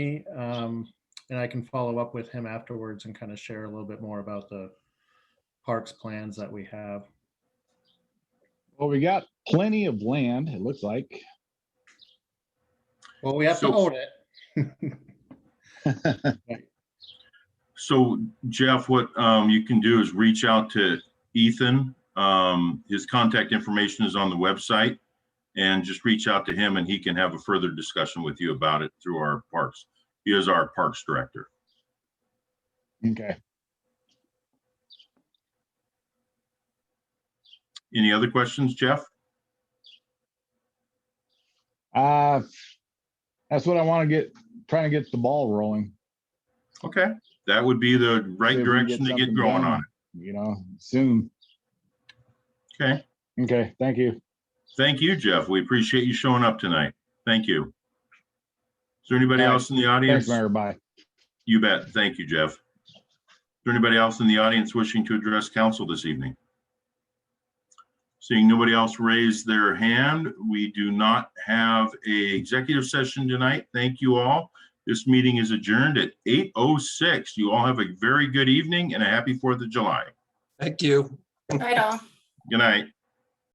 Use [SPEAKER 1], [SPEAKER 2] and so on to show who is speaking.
[SPEAKER 1] me, um, and I can follow up with him afterwards and kind of share a little bit more about the parks plans that we have.
[SPEAKER 2] Well, we got plenty of land, it looks like.
[SPEAKER 1] Well, we have to
[SPEAKER 3] So-
[SPEAKER 1] own it.
[SPEAKER 3] So Jeff, what um, you can do is reach out to Ethan. Um, His contact information is on the website. And just reach out to him and he can have a further discussion with you about it through our parks. He is our parks director.
[SPEAKER 2] Okay.
[SPEAKER 3] Any other questions, Jeff?
[SPEAKER 2] Uh, that's what I want to get, trying to get the ball rolling,
[SPEAKER 3] Okay, that would be the
[SPEAKER 2] See if
[SPEAKER 3] right
[SPEAKER 2] we can get
[SPEAKER 3] direction to get
[SPEAKER 2] something
[SPEAKER 3] going
[SPEAKER 2] done.
[SPEAKER 3] on.
[SPEAKER 2] you know, soon.
[SPEAKER 3] it. Okay,
[SPEAKER 2] Okay, thank you.
[SPEAKER 3] thank you, Jeff. We appreciate you showing up tonight. Thank you. Is there anybody
[SPEAKER 2] All right.
[SPEAKER 3] else in the
[SPEAKER 2] Thanks,
[SPEAKER 3] audience?
[SPEAKER 2] Mayor. Bye.
[SPEAKER 3] You bet. Thank you, Jeff. Is there anybody else in the audience wishing to address council this evening? Seeing nobody else raise their hand, we do not have a executive session tonight. Thank you all. This meeting is adjourned at 8:06. You all have a very good evening and a happy Fourth of July.
[SPEAKER 4] Thank you.
[SPEAKER 5] Right on.
[SPEAKER 3] Good night.